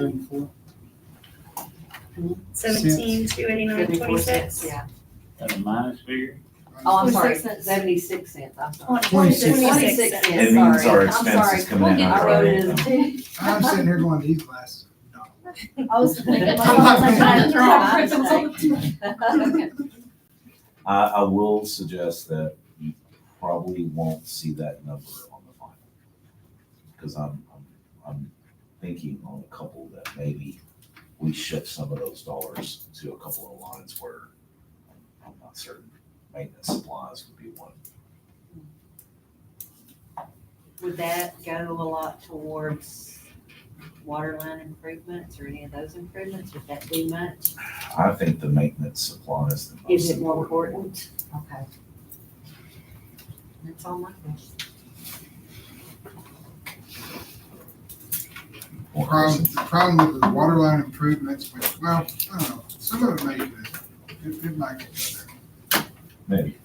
seventy-four? Seventeen, two eighty-nine, twenty-six. Yeah. That's a minus figure? Oh, I'm sorry, 26 cents. seventy-six cents, I'm sorry. Twenty-six. Twenty-six cents. It cents, means our sorry, I'm expenses sorry. come in I under wrote our it as income. two. I'm sitting here going to these classes. No. I was thinking, I'm I was like, sorry. I'm throwing my principal. Okay. I, I will suggest that you probably won't see that number on the final. Cause I'm, I'm, I'm thinking on a couple that maybe we shift some of those dollars to a couple of lines where I'm not certain maintenance supplies would be one. Would that go a lot towards water line improvements or any of those improvements? Would that be much? I think the maintenance supply is the most important. Is it more important? Okay. That's all my questions. one. Problem, the problem with the water line improvements, which, well, I don't know, some of it may, be- it, it might get better. Maybe.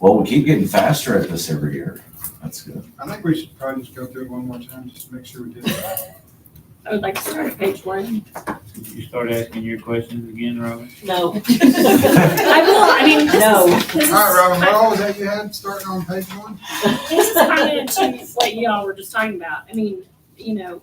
Well, we keep getting faster at this every year. That's good. I think we should probably just go through it one more time, just to make sure we did it. right. I would like to start at page one. You start asking your questions again, Robin? No. I will, I mean, No. this All is, right, Robin, what I- all was that you had, starting on page one? this is kind of to what y'all were just talking about. I mean, you know,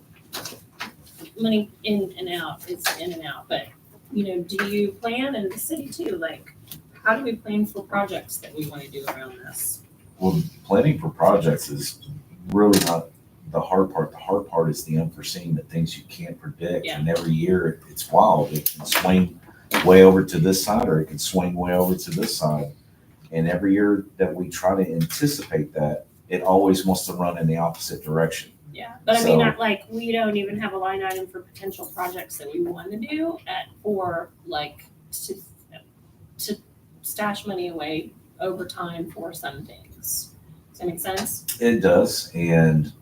money in and out is in and out, but, you know, do you plan, and the city too, like, how do we plan for projects that we want to do around this? Well, planning for projects is really not the hard part. The hard part is the unforeseen, the things you can't predict. Yeah. And every year it's wild. It can swing way over to this side or it can swing way over to this side. And every year that we try to anticipate that, it always wants to run in the opposite direction. Yeah, but I mean, So- I- like, we don't even have a line item for potential projects that we want to do at, or like to, to stash money away over time for some things. Does that make sense? It does, and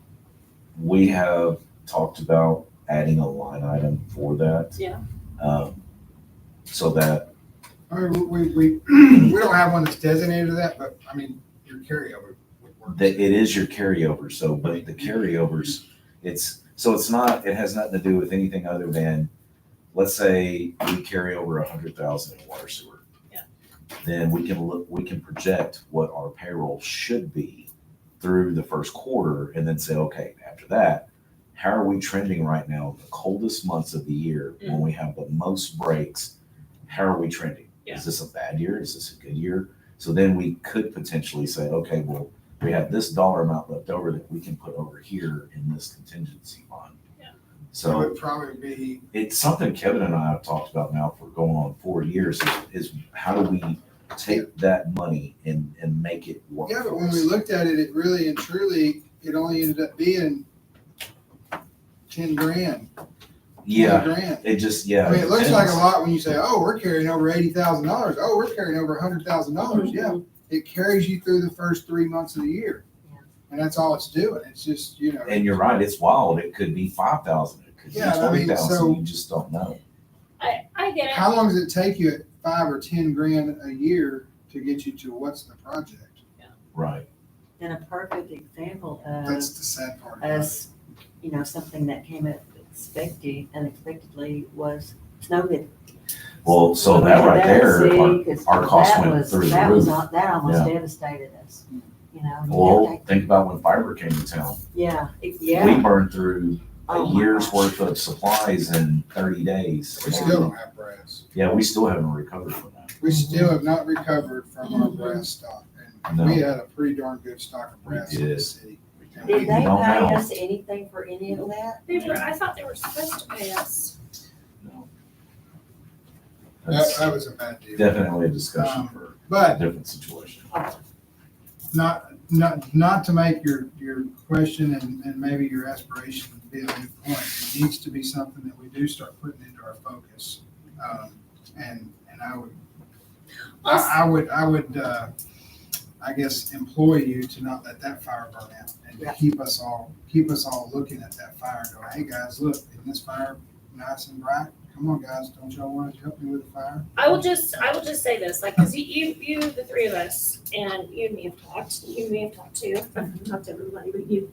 we have talked about adding a line item for that. Yeah. Um, so that, I mean, we, we, we don't have one that's designated to that, but, I mean, your carryover would work. that it is your carryover, so, but the carryovers, it's, so it's not, it has nothing to do with anything other than, let's say we carry over a hundred thousand in water sewer. Yeah. Then we can look, we can project what our payroll should be through the first quarter and then say, okay, after that, how are we trending right now, the coldest months of the year, Mm. when we have the most breaks? How are we trending? Yeah. Is this a bad year? Is this a good year? So then we could potentially say, okay, well, we have this dollar amount left over that we can put over here in this contingency fund. Yeah. So So it'd probably be, it's something Kevin and I have talked about now for going on four years is, is how do we take that money and, and make it work? yeah, but for when we us? looked at it, it really and truly, it only ended up being ten grand. 20 Yeah, Grand. it just, yeah. I mean, it looks like a depends. lot when you say, oh, we're carrying over eighty thousand dollars. Oh, we're carrying over a hundred thousand dollars. Mm-hmm. Yeah. It carries you through the first three months of the year. Yeah. And that's all it's doing. It's just, you know, And you're right, it's wild. It could be five thousand, it could be Yeah, I mean, twenty thousand, so- you just don't know. I, I get it. how long does it take you at five or ten grand a year to get you to what's the project? Right, And a perfect example of That's the sad part. about it. us, you know, something that came up expecting, unexpectedly was Snowden. well, so that right there, our- our costs went through the That was, roof. al- that almost devastated us, you know. you well, have to- think about when fiber came to town. Yeah, it- We yeah. burned through Oh a my year's gosh. worth of supplies in thirty days. We still don't have brass. Yeah, we still haven't recovered from that. Mm-hmm. We still have not recovered from our brass stock. And we had a pretty darn good stock of brass in We the did. city. And Did they we- pay don't know. us anything for any of that? They were, I thought they were supposed to pay us. No. That, That's that was a bad deal. Um, definitely a discussion for a But different situation. not, not, not to make your, your question and, and maybe your aspiration be a good point. It needs to be something that we do start putting into our focus. Um, And, and I would, I, I would, I would, uh, I guess, employ you to not let that fire burn out and to Yeah. keep us all, keep us all looking at that fire and going, hey, guys, look, isn't this fire nice and bright? Come on, guys, don't y'all want to help me with the fire? I will just, I will just say this, like, because you, you, Mm-hmm. you, the three of us, and you and me have talked, you and me have talked too. I've talked to everybody, but you